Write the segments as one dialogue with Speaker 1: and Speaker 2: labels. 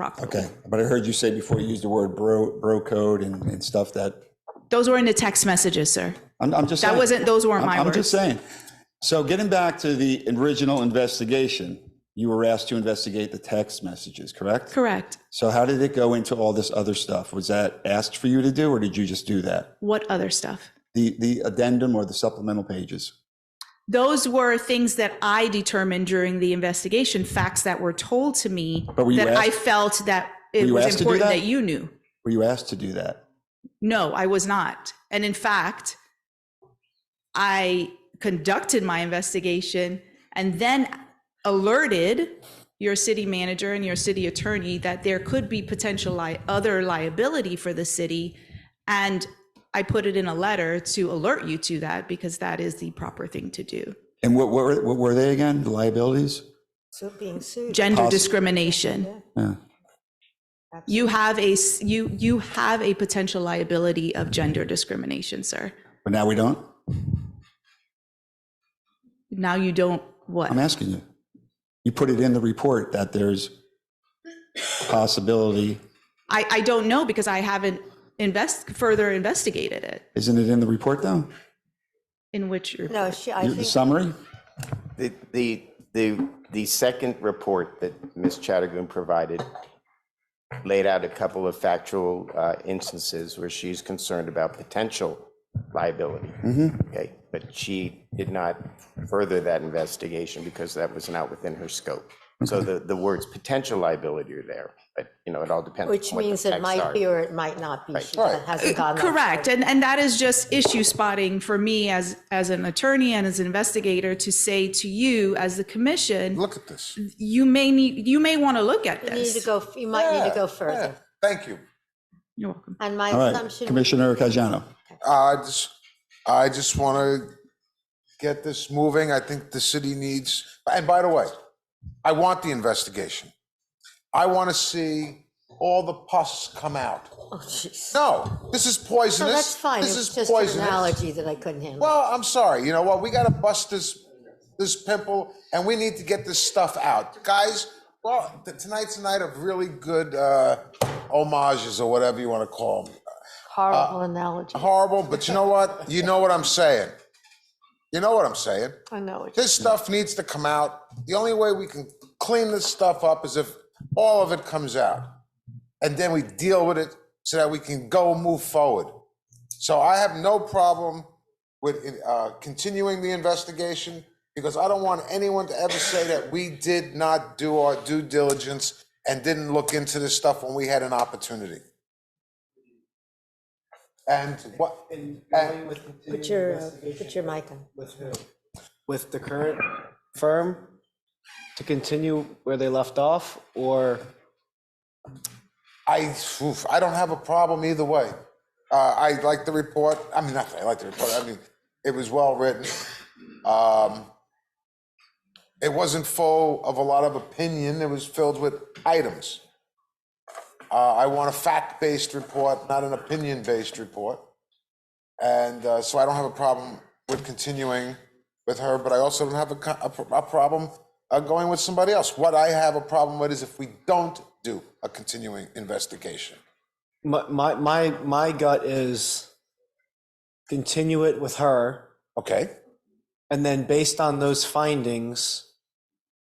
Speaker 1: properly.
Speaker 2: Okay, but I heard you say before you used the word bro, bro code and, and stuff that,
Speaker 1: Those were in the text messages, sir.
Speaker 2: I'm, I'm just saying.
Speaker 1: That wasn't, those weren't
Speaker 2: I'm-
Speaker 1: my
Speaker 2: I'm just
Speaker 1: words.
Speaker 2: saying. So getting back to the original investigation, you were asked to investigate the text messages, correct?
Speaker 1: Correct.
Speaker 2: So how did it go into all this other stuff? Was that asked for you to do, or did you just do that?
Speaker 1: What other stuff?
Speaker 2: The, the addendum or the supplemental pages?
Speaker 1: Those were things that I determined during the investigation, facts that were told to me
Speaker 2: But were you
Speaker 1: that I
Speaker 2: asked-
Speaker 1: felt that
Speaker 2: Were
Speaker 1: it
Speaker 2: you
Speaker 1: was
Speaker 2: asked to do
Speaker 1: important
Speaker 2: that?
Speaker 1: that you knew.
Speaker 2: Were you asked to do that?
Speaker 1: No, I was not. And in fact, I conducted my investigation and then alerted your city manager and your city attorney that there could be potential li- other liability for the city. And I put it in a letter to alert you to that because that is the proper thing to do.
Speaker 2: And what, what, were- what were they again? The liabilities?
Speaker 3: So being sued.
Speaker 1: Gender
Speaker 2: Poss-
Speaker 1: discrimination.
Speaker 2: Yeah.
Speaker 1: You have a s- you you have a potential liability of gender discrimination, sir.
Speaker 2: But now we don't?
Speaker 1: Now you don't what?
Speaker 2: I'm asking you. You put it in the report that there's possibility.
Speaker 1: I, I don't know because I haven't invest, further investigated it.
Speaker 2: Isn't it in the report though?
Speaker 1: In which, re-
Speaker 3: No, she, I
Speaker 2: Your- The
Speaker 3: think,
Speaker 2: summary?
Speaker 4: The, the, the, the second report that Ms. Chattergoon provided laid out a couple of factual uh, instances where she's concerned about potential liability. Okay, but she did not further that investigation because that was not within her scope. So the, the words potential liability are there, but, you know, it all depends.
Speaker 3: which
Speaker 4: on what the
Speaker 3: means it
Speaker 4: facts
Speaker 3: might
Speaker 4: are.
Speaker 3: be or it might not be. She hasn't gone that
Speaker 1: correct. And, and that is just issue spotting for me as, as an attorney and as an investigator to say to you as the commission,
Speaker 5: Look at this. You
Speaker 1: you may need, you may want to look at
Speaker 3: You need to
Speaker 1: this.
Speaker 3: go, you might need to go further.
Speaker 5: Thank you.
Speaker 1: You're welcome.
Speaker 3: And my
Speaker 2: All right,
Speaker 3: assumption,
Speaker 2: Commissioner Caggiano.
Speaker 5: I just, I just want to get this moving. I think the city needs, and by the way, I want the investigation. I want to see all the pus come out.
Speaker 3: oh, jeez.
Speaker 5: No, this is
Speaker 3: No,
Speaker 5: poisonous.
Speaker 3: that's fine.
Speaker 5: This
Speaker 3: It's
Speaker 5: is
Speaker 3: just an
Speaker 5: poisonous.
Speaker 3: analogy that I couldn't handle.
Speaker 5: Well, I'm sorry. You know what? We got to bust this this pimple, and we need to get this stuff out, guys. Well, t- tonight's a night of really good uh, homages or whatever you want to call them.
Speaker 3: Horrible analogy.
Speaker 5: Horrible, but you know what? You know what I'm saying. You know what I'm saying.
Speaker 3: I know. it.
Speaker 5: This stuff needs to come out. The only way we can clean this stuff up is if all of it comes out. And then we deal with it so that we can go move forward. So I have no problem with uh, continuing the investigation because I don't want anyone to ever say that we did not do our due diligence and didn't look into this stuff when we had an opportunity. And what,
Speaker 6: And
Speaker 5: and-
Speaker 6: going with
Speaker 3: Put
Speaker 6: continuing
Speaker 3: your, uh,
Speaker 6: investigation
Speaker 3: put your mic on.
Speaker 6: with who? With the current firm to continue where they left off or?
Speaker 5: I, oof, I don't have a problem either way. Uh, I like the report. I mean, not that I like the report. I mean, it was well written. Um, it wasn't full of a lot of opinion. It was filled with items. Uh, I want a fact-based report, not an opinion-based report. And uh, so I don't have a problem with continuing with her, but I also don't have a, co- a, pro- a problem uh, going with somebody else. What I have a problem with is if we don't do a continuing investigation.
Speaker 6: My, my, my, my gut is continue it with her
Speaker 5: Okay?
Speaker 6: and then based on those findings,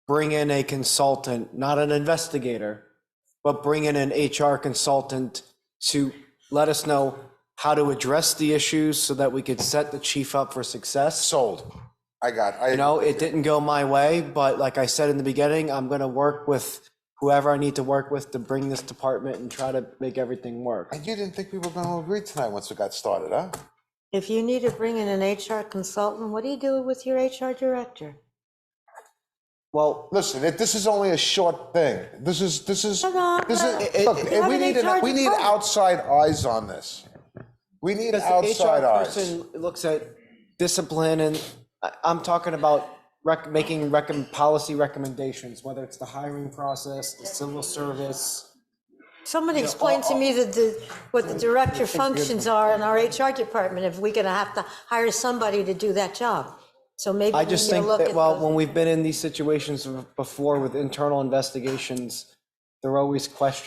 Speaker 6: bring in a consultant, not an investigator, but bring in an HR consultant to let us know how to address the issues so that we could set the chief up for success.
Speaker 5: Sold. I got, I,
Speaker 6: You know, it didn't go my way, but like I said in the beginning, I'm gonna work with whoever I need to work with to bring this department and try to make everything work.
Speaker 5: and you didn't think we were going to agree tonight once we got started, huh?
Speaker 3: If you need to bring in an HR consultant, what do you do with your HR director?
Speaker 6: Well,
Speaker 5: Listen, it, this is only a short thing. This is, this is,
Speaker 3: Come on,
Speaker 5: this
Speaker 3: it-
Speaker 5: is, look,
Speaker 3: it-
Speaker 5: we
Speaker 3: Have an
Speaker 5: need, an-
Speaker 3: HR
Speaker 5: we need
Speaker 3: department.
Speaker 5: outside eyes on this. We need
Speaker 6: because the
Speaker 5: outside
Speaker 6: HR
Speaker 5: eyes.
Speaker 6: person looks at discipline and I, I'm talking about rec, making recom, policy recommendations, whether it's the hiring process, the civil service.
Speaker 3: Somebody explain to me the- the, what the director functions are in our HR department if we're going to have to hire somebody to do that job. So maybe
Speaker 6: I
Speaker 3: we
Speaker 6: just
Speaker 3: need to
Speaker 6: think
Speaker 3: look
Speaker 6: that,
Speaker 3: at
Speaker 6: well,
Speaker 3: those.
Speaker 6: when we've been in these situations before with internal investigations, They're always questions